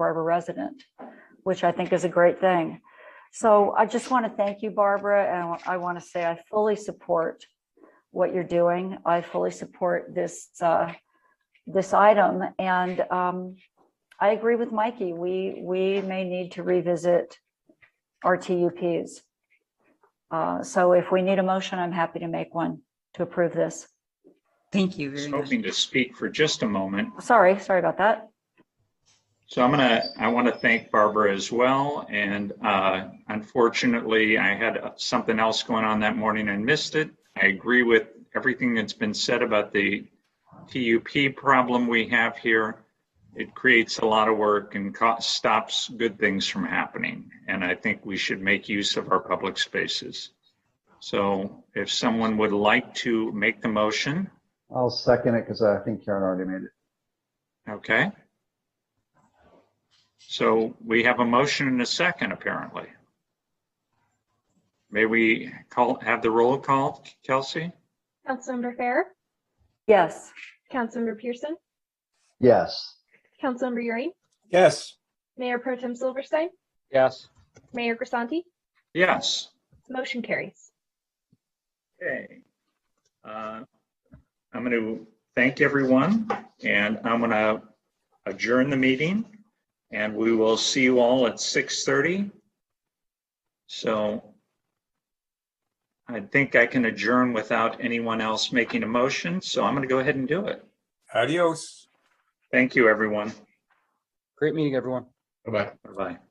Barbara resident, which I think is a great thing. So I just want to thank you, Barbara, and I want to say I fully support what you're doing. I fully support this, uh, this item. And um, I agree with Mikey. We, we may need to revisit our TUPs. Uh, So if we need a motion, I'm happy to make one to approve this. Thank you was very much. hoping to speak for just a moment. Sorry, sorry about that. So I'm gonna, I want to thank Barbara as well. And uh, unfortunately, I had something else going on that morning and missed it. I agree with everything that's been said about the TUP problem we have here. It creates a lot of work and co- stops good things from happening. And I think we should make use of our public spaces. So if someone would like to make the motion, I'll second it because I think Karen already made it. Okay. So we have a motion and a second, apparently. May we call, have the roll call, Kelsey? Councilmember Fair, Yes, Councilmember Pearson, Yes, Councilmember Euring, Yes. Mayor Pro Tem Silverstein, Yes. Mayor Grisanti, Yes. motion carries. Okay. Uh, I'm going to thank everyone and I'm going to adjourn the meeting and we will see you all at 6:30. So I think I can adjourn without anyone else making a motion, so I'm going to go ahead and do it. Adios. Thank you, everyone. Great meeting, everyone. Bye-bye.